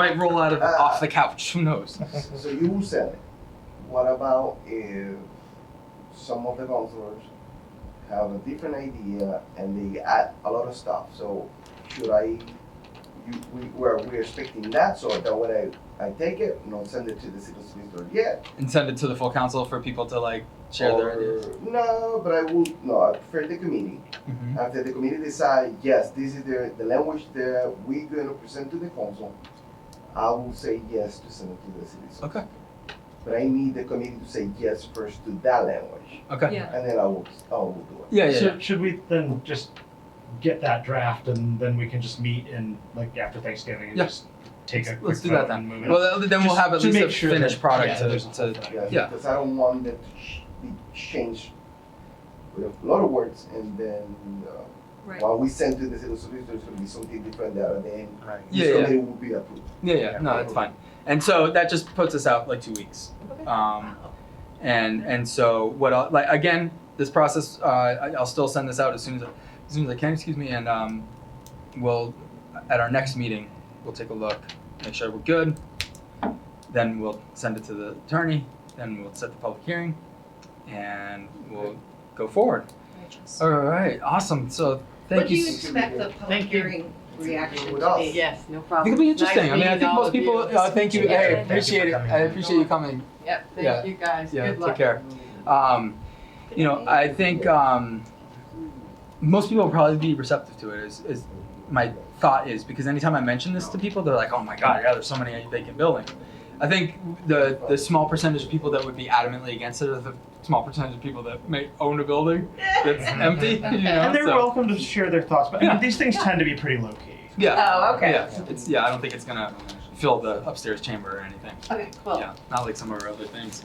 I might roll out of Uh. off the couch. Who knows? Mm-hmm. So you said it. What about if some of the counselors have a different idea and they add a lot of stuff? So should I, you, we, we're, we're expecting that, so that when I, I take it, not send it to the city solicitor yet. and send it to the full council for people to like share or, their ideas. No, but I would, no, I prefer the committee. Mhm. After the committee decide, yes, this is the, the language that we're gonna present to the council, I will say yes to send it to the city solicitor. Okay. But I need the committee to say yes first to that language, Okay. Yeah. and then I will, I will do it. Yeah. Yeah. So yeah. should we then just get that draft and then we can just meet and like after Thanksgiving and Yeah. just take a Let's- quick let's do vote that then. and move it? Well, then we'll Just have at to least make a sure finished that- product yeah, to, there's to not- Yeah. Because I don't want that to sh- be changed with a lot of words, and then, uh, Right. while we send to the city solicitor, it's gonna be something different there, and then Right. Yeah, this yeah. committee will be approved. Yeah, yeah, no, that's fine. And so that just puts us out like two weeks. Okay. Um, and and so what? I'll, like again, this process, uh, I, I'll still send this out as soon as I, as soon as I can. Excuse me, and um, we'll at our next meeting we'll take a look, make sure we're good. Then we'll send it to the attorney. Then we'll set the public hearing, and we'll go forward. Righteous. All right, awesome. So thank What do you. you s- expect the public Thank you. hearing reaction With to us. be? Yes, no problem. It'll be Nice interesting. I mean, I meeting think all most of you. people. Uh, thank you. Yeah, Hey, thank you for appreciate it. coming. I appreciate you coming. Yep, Yeah. thank you guys. Yeah, Good take luck. care. Um, you know, I think um, most people will probably be receptive to it. Is, is my thought is because anytime I mention this to people, they're like, "Oh my god, yeah, there's so many vacant buildings." I think the the small percentage of people that would be adamantly against it are the small percentage of people that may own a building that's empty. You know, And they're so- welcome to share their thoughts, but I Yeah. mean, these things tend to be pretty low key. yeah, Oh, okay. yeah. It's yeah. I don't think it's gonna fill the upstairs chamber or anything. Okay, cool. Yeah, not like some of our other things.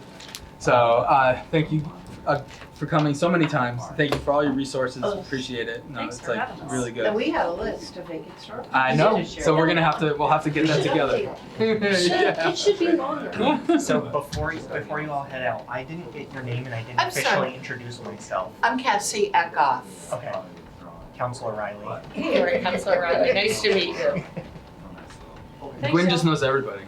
So uh, thank you uh, for coming so many times. Thank you for all your resources. Oh, Appreciate it. No, thanks it's for like having us. really Now, good. we had a list of vacant stores. I know. We should So share we're that. gonna have to. We'll have to get that together. It should be longer. Yeah. So before you, before you all head out, I didn't get your name and I didn't I'm sorry. officially introduce myself. I'm Cassie at Goff. Okay, Counselor Riley. Hey, Counselor Riley, nice to meet you. Thanks, Gwen y'all. just knows everybody.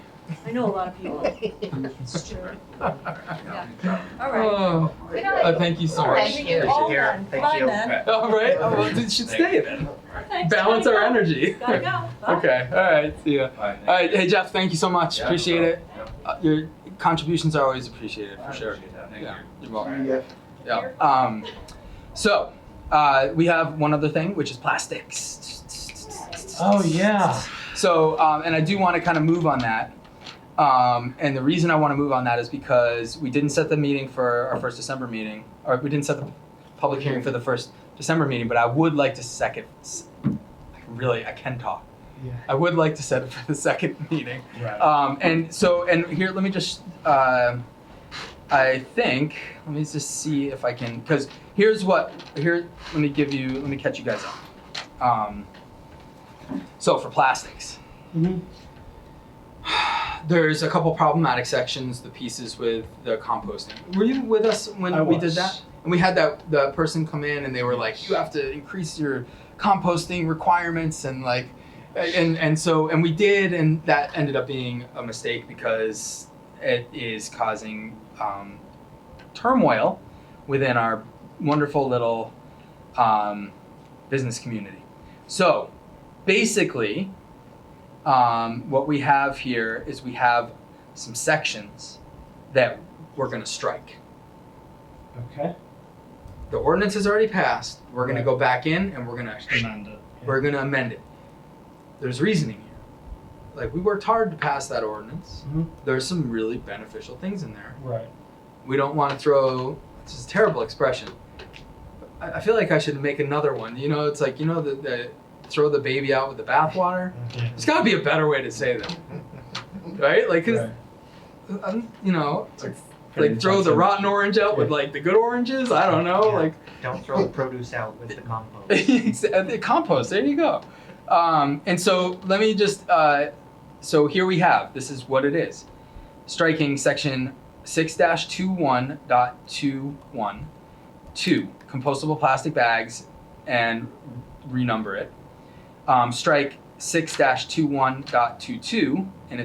I know a lot of people. It's true. All right. Oh, Good uh, night. thank you so much. Thank Good you. to All hear. done. Thank Bye, you. then. All right. Oh, well, it should stay then. Thanks. Balance our Gotta go. energy. Gotta go. Bye. Okay. All right. See ya. All right. Hey Jeff, thank you so much. Yeah, no Appreciate it. problem. Uh, your contributions are always appreciated for sure. Thank Yeah. you. You're welcome. Yeah. Yeah. Um, so uh, we have one other thing, which is plastics. Oh, yeah. So, um, and I do want to kind of move on that. Um, and the reason I want to move on that is because we didn't set the meeting for our first December meeting, or we didn't set the public hearing for the first December meeting. But I would like to second. I can really, I can talk. Yeah. I would like to set it for the second meeting. Right. Um, and so, and here, let me just, uh, I think, let me just see if I can, because here's what, here, let me give you, let me catch you guys up. Um, so for plastics, Mhm. there's a couple problematic sections, the pieces with the composting. Were you with us when I we did was. that? And we had that the person come in and they were like, you have to increase your composting requirements and like and and so and we did and that ended up being a mistake because it is causing um, turmoil within our wonderful little um, business community. So basically, um, what we have here is we have some sections that we're going to strike. Okay. The ordinance has already passed. We're going to go back in and we're going to Amanda. we're going to amend it. There's reasoning here. Like, we worked hard to pass that ordinance. Mhm. There's some really beneficial things in there. Right. We don't want to throw, this is a terrible expression. I, I feel like I should make another one. You know, it's like, you know, the, the throw the baby out with the bathwater. There's got to be a better way to say that, right? Like, 'cause, um, you know, like, like throw the rotten orange out with like the good oranges. I don't know. Yeah. Like, uh, Don't throw the produce out with the compost. the compost. There you go. Um, and so let me just. Uh, so here we have. This is what it is. Striking section six dash two one dot two one two compostable plastic bags and renumber it. Um, strike six dash two one dot two two, and it's